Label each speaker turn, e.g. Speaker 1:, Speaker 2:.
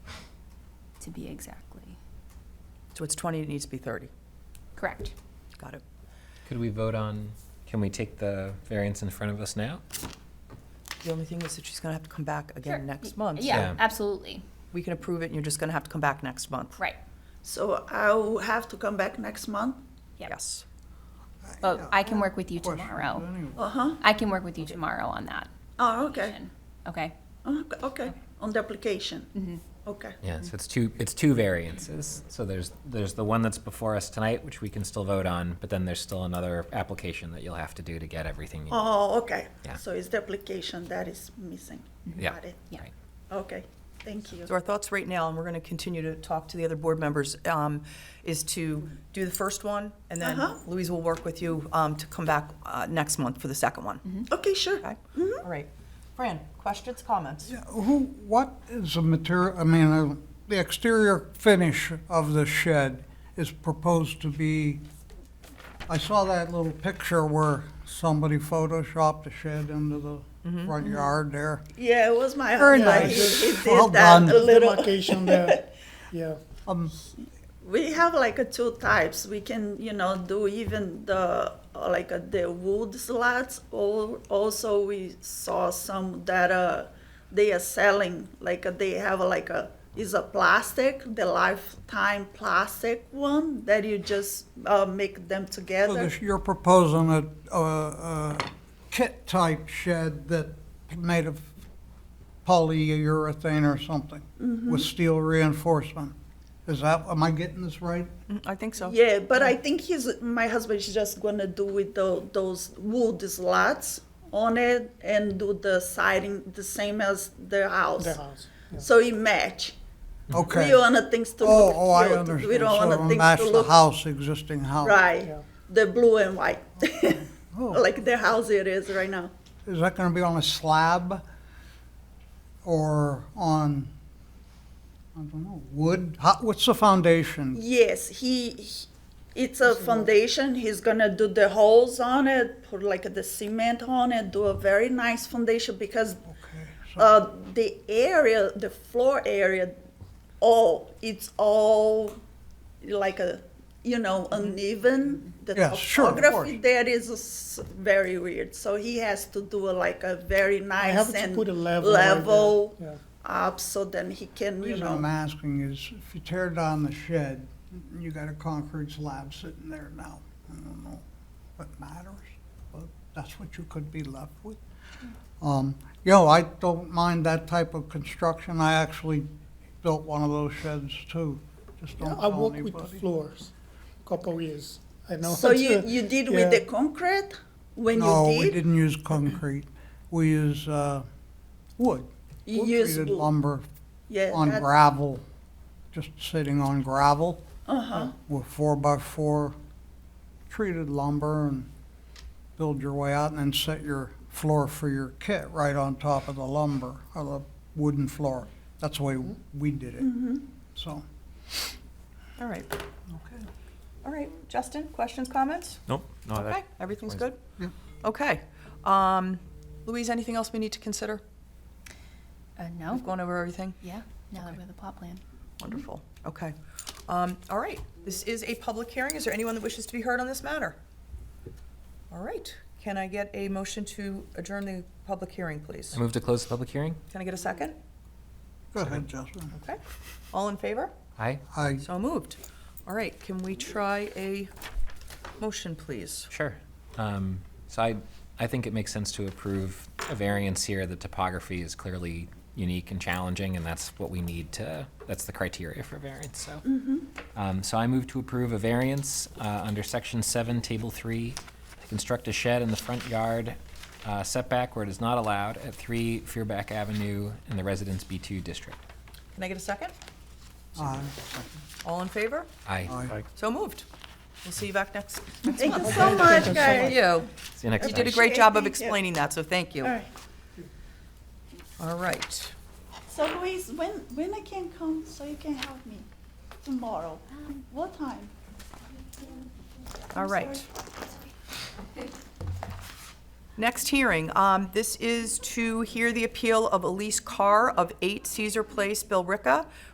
Speaker 1: to be exactly.
Speaker 2: So it's 20, it needs to be 30.
Speaker 1: Correct.
Speaker 2: Got it.
Speaker 3: Could we vote on, can we take the variance in front of us now?
Speaker 2: The only thing is that she's going to have to come back
Speaker 1: Sure.
Speaker 2: again next month.
Speaker 1: Yeah,
Speaker 3: Yeah.
Speaker 1: absolutely.
Speaker 2: We can approve it, and you're just going to have to come back next month.
Speaker 1: Right.
Speaker 4: So I'll have to come back next month?
Speaker 1: Yep.
Speaker 2: Yes.
Speaker 1: But I can work with you
Speaker 5: Question,
Speaker 1: tomorrow.
Speaker 3: Mm.
Speaker 5: anyway.
Speaker 4: Uh-huh.
Speaker 1: I can work with you tomorrow on that.
Speaker 4: Oh, okay. Uh,
Speaker 1: application. Okay.
Speaker 4: Okay, okay. on the application?
Speaker 1: Mhm.
Speaker 4: Okay.
Speaker 3: Yeah, so it's two, it's two variances. So there's, there's the one that's before us tonight, which we can still vote on, but then there's still another application that you'll have to do to get everything. you-
Speaker 4: Oh, okay.
Speaker 3: Yeah.
Speaker 4: So it's the application that is missing.
Speaker 3: Yeah.
Speaker 4: Got it.
Speaker 1: Yeah.
Speaker 3: Right.
Speaker 4: Okay, thank you.
Speaker 2: So our thoughts right now, and we're going to continue to talk to the other board members, um, is to do the first one, and then
Speaker 4: Uh-huh.
Speaker 2: Louise will work with you um, to come back uh, next month for the second one.
Speaker 4: Okay, sure.
Speaker 2: Okay? All right. Fran, questions, comments?
Speaker 5: Yeah, Who, what is the material, I mean, uh, the exterior finish of the shed is proposed to be, I saw that little picture where somebody photoshopped the shed into the front yard there.
Speaker 4: Yeah, it was my.
Speaker 5: Very
Speaker 4: idea.
Speaker 5: nice.
Speaker 4: He- he
Speaker 5: Well
Speaker 4: did that
Speaker 5: done.
Speaker 4: a little.
Speaker 6: Demarcation there, yeah.
Speaker 5: Um,
Speaker 4: We have like a two types. We can, you know, do even the, uh, like uh, the wood slats. Or also we saw some that uh, they are selling, like uh, they have like a, is a plastic, the lifetime plastic one that you just uh, make them
Speaker 5: so
Speaker 4: together.
Speaker 5: this- You're proposing a, a- a kit-type shed that made of polyurethane or something with steel reinforcement. Is that, am I getting this right?
Speaker 2: Mm, I think so.
Speaker 4: Yeah, but I think he's my husband is just gonna do with tho- those wood slats on it and do the siding the same as the house.
Speaker 6: The house, yeah.
Speaker 4: So it match.
Speaker 5: Okay.
Speaker 4: We want things to
Speaker 5: Oh,
Speaker 4: look
Speaker 5: oh, I
Speaker 4: cute.
Speaker 5: understand.
Speaker 4: We don't
Speaker 5: So
Speaker 4: want
Speaker 5: it'll
Speaker 4: things
Speaker 5: match
Speaker 4: to
Speaker 5: the
Speaker 4: look
Speaker 5: house, existing house.
Speaker 4: right.
Speaker 6: Yeah.
Speaker 4: The blue and white,
Speaker 5: Oh.
Speaker 4: like the house it is right now.
Speaker 5: Is that gonna be on a slab or on, I don't know, wood? How, what's the foundation?
Speaker 4: Yes, he. he- it's a foundation. He's gonna do the holes on it, put like the cement on it, do a very nice foundation because
Speaker 5: Okay, so-
Speaker 4: Uh, the area, the floor area, all it's all like a, you know, uneven. The
Speaker 5: Yes, sure, of
Speaker 4: topography
Speaker 5: course.
Speaker 4: there is s- very weird. So he has to do a, like a very
Speaker 6: I
Speaker 4: nice
Speaker 6: have to
Speaker 4: and
Speaker 6: put a level. right there,
Speaker 4: level
Speaker 6: yeah.
Speaker 4: up so then he can,
Speaker 5: The
Speaker 4: you
Speaker 5: reason
Speaker 4: know.
Speaker 5: I'm asking is if you tear down the shed, you got a concrete slab sitting there now. I don't know what matters, but that's what you could be left with. Um, you know, I don't mind that type of construction. I actually built one of those sheds too. Just don't
Speaker 6: I
Speaker 5: tell
Speaker 6: work with the
Speaker 5: anybody.
Speaker 6: floors, couple years, I know.
Speaker 4: So you you did with the concrete when
Speaker 5: No,
Speaker 4: you
Speaker 5: we
Speaker 4: did.
Speaker 5: didn't use concrete. We use, uh, wood.
Speaker 4: You
Speaker 5: Wood
Speaker 4: used
Speaker 5: treated
Speaker 4: wood.
Speaker 5: lumber
Speaker 4: yeah.
Speaker 5: on
Speaker 4: that-
Speaker 5: gravel, just sitting on gravel.
Speaker 4: uh-huh.
Speaker 5: with four by four treated lumber and build your way out and then set your floor for your kit right on top of the lumber or the wooden floor. That's the way we did it. So.
Speaker 2: All right. Okay. All right, Justin, questions, comments?
Speaker 3: Nope. no, that-
Speaker 2: Okay, everything's good?
Speaker 3: explains
Speaker 5: Yeah.
Speaker 2: Okay. Um, Louise, anything else we need to consider?
Speaker 1: Uh,
Speaker 2: We've
Speaker 1: no?
Speaker 2: gone over everything?
Speaker 1: Yeah, now that we have the plot plan.
Speaker 2: Wonderful. Okay. Um, all right. This is a public hearing. Is there anyone that wishes to be heard on this matter? All right. Can I get a motion to adjourn the public hearing, please?
Speaker 3: I move to close the public hearing?
Speaker 2: Can I get a second?
Speaker 5: Go ahead, Justin.
Speaker 2: Okay. All in favor?
Speaker 3: Aye?
Speaker 5: I,
Speaker 2: So moved. All right. Can we try a motion, please?
Speaker 3: Sure. Um, So I, I think it makes sense to approve a variance here. The topography is clearly unique and challenging, and that's what we need to, that's the criteria for variance, so. Um, So I move to approve a variance uh, under Section 7, Table 3, to construct a shed in the front yard uh, setback where it is not allowed at 3 Fearback Avenue in the Residence B2 District.
Speaker 2: Can I get a second?
Speaker 5: I,
Speaker 2: All in favor?
Speaker 3: Aye.
Speaker 5: I,
Speaker 2: So moved. We'll see you back next, next
Speaker 4: Thank you
Speaker 2: month.
Speaker 4: so much,
Speaker 2: Thank
Speaker 4: guys.
Speaker 2: you.
Speaker 3: See you next
Speaker 2: You
Speaker 3: time.
Speaker 2: did a great job of
Speaker 4: Thank you.
Speaker 2: explaining that, so thank you.
Speaker 4: All right.
Speaker 2: All right.
Speaker 4: So Louise, when when I can come so you can help me tomorrow? What time?
Speaker 2: All right. Next hearing, um, this is to hear the appeal of Elise Carr of 8 Caesar Place, Billerica,